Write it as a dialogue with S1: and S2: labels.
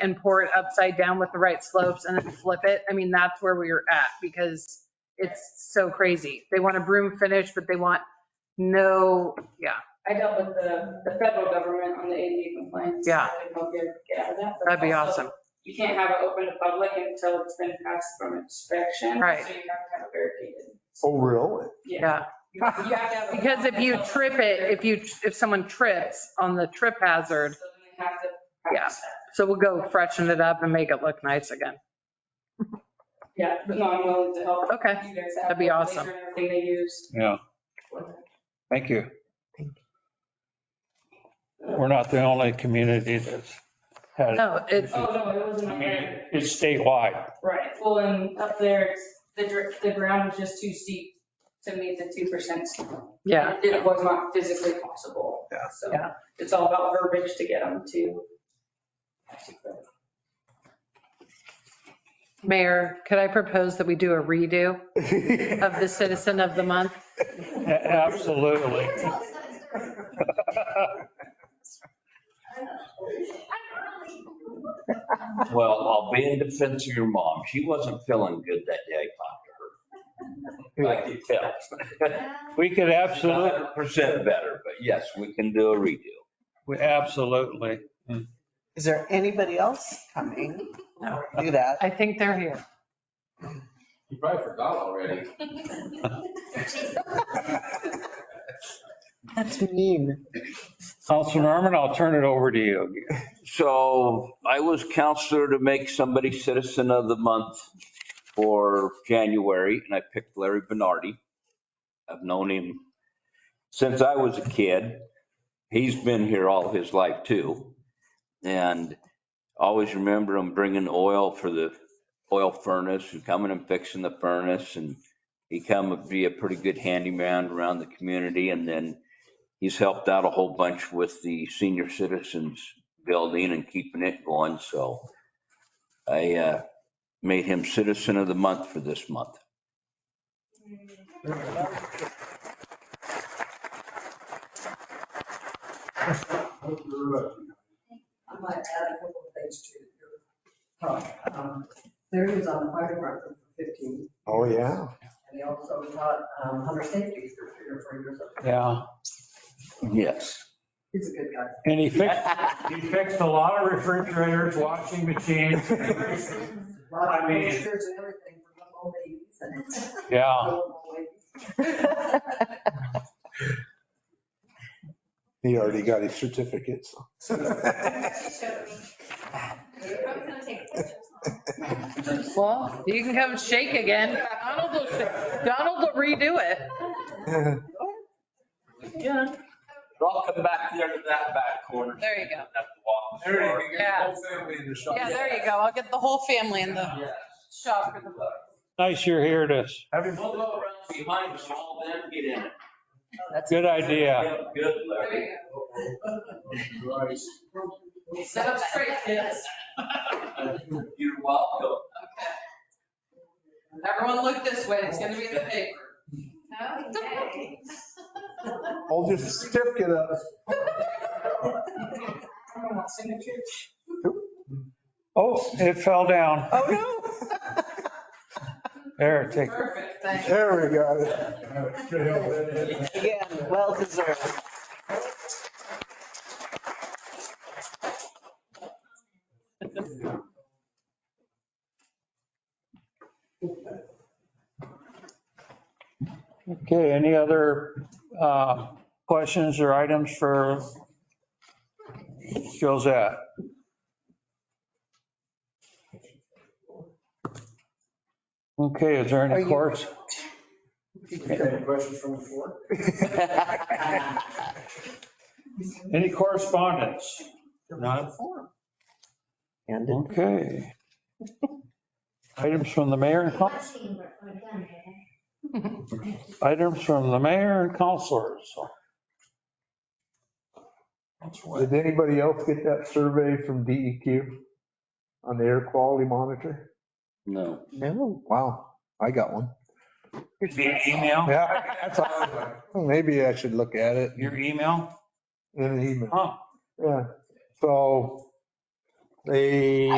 S1: and pour it upside down with the right slopes and then flip it. I mean, that's where we were at because it's so crazy. They want a broom finish, but they want no, yeah,
S2: I dealt with the, the federal government on the ADA compliance.
S1: Yeah.
S2: I can help you get out of that. but
S1: that'd be
S2: also,
S1: awesome.
S2: You can't have it open to public until it's been passed from inspection.
S1: Right.
S2: So you have to have it barricaded.
S3: Oh, really?
S1: Yeah.
S2: You have to have. a-
S1: Because if you trip it, if you, if someone trips on the trip hazard,
S2: So then they have to practice
S1: so we'll go freshen it up and make it look nice again.
S2: that. Yeah, but no, I'm willing to help.
S1: Okay.
S2: You guys have.
S1: That'd be
S2: the
S1: awesome.
S2: laser and Everything they use.
S4: Yeah,
S2: Oh,
S4: thank you. We're not the only community that's had, it.
S1: No, it's,
S2: Oh, no, it wasn't.
S4: I
S2: on
S4: mean,
S2: there.
S4: it's statewide.
S2: Right. Well, and up there, it's- the, dr- the ground is just too steep to meet the 2%.
S1: yeah,
S2: It was not physically possible.
S3: Yeah.
S2: So
S1: Yeah.
S2: it's all about verbiage to get them to.
S1: Mayor, could I propose that we do a redo of the citizen of the month?
S4: A- Absolutely.
S5: Well, I'll be in defense of your mom. She wasn't feeling good that day I talked to her. I could tell.
S4: We could absolutely,
S5: Absolutely. Percent better, but yes, we can do a redo.
S4: we absolutely.
S6: Is there anybody else coming? No. Do that.
S1: I think they're here.
S7: You probably forgot already.
S6: That's mean.
S4: Councilman Norman, I'll turn it over to you.
S5: So I was counselor to make somebody citizen of the month for January and I picked Larry Bernardi. I've known him since I was a kid. He's been here all his life too. And always remember him bringing oil for the oil furnace and coming and fixing the furnace and he come and be a pretty good handyman around the community and then he's helped out a whole bunch with the senior citizens building and keeping it going, so I uh, made him citizen of the month for this month.
S8: I might add a couple of things to your talk. Um, Larry was on the fire department for 15,
S3: Oh, yeah.
S8: and he also taught um, hunter safety for three or four years.
S4: Yeah,
S5: Yes.
S8: He's a good guy.
S4: and he fixed, he fixed a lot of refrigerators, washing machines.
S8: A lot
S4: I
S8: of
S4: mean-
S8: pictures and everything for little babies and
S4: Yeah,
S8: little ladies.
S6: Oh,
S3: He already got his certificate, so.
S1: Well, you can come shake again. Donald will, shake- Donald will redo it. Yeah.
S5: I'll come back there to that back corner.
S1: There you go.
S7: There you go.
S1: Yeah.
S7: Whole family in the shop.
S1: Yeah, there you go. I'll get the whole family in the shop for the book.
S4: nice you're here to,
S3: Have him-
S5: We'll go around behind us all then get in it.
S4: good idea.
S5: Good,
S1: There
S5: Larry.
S1: you
S7: Right.
S1: go. Set up straight, kids.
S5: You're welcome.
S1: Everyone look this way. It's gonna be in the paper.
S3: Hold your certificate up.
S2: Someone wants signatures?
S4: Oh, it fell down.
S6: Oh, no.
S4: There, take,
S1: Perfect, thank you.
S3: There we got it.
S6: Again, well deserved.
S4: okay, any other uh, questions or items for Josette? Okay, is there
S6: Are
S4: any
S6: you-
S4: course?
S7: Any questions from the floor?
S4: Any correspondence? None?
S6: And
S4: Okay. Items from the mayor and coun- items from the mayor and counselors.
S3: Did anybody else get that survey from DEQ on the air quality monitor?
S5: No.
S6: no.
S3: Wow, I got one.
S4: Your email,
S3: Yeah, that's all. "Hmm, Maybe I should look at it
S4: your email?
S3: in an email.
S4: Huh.
S3: Yeah, so They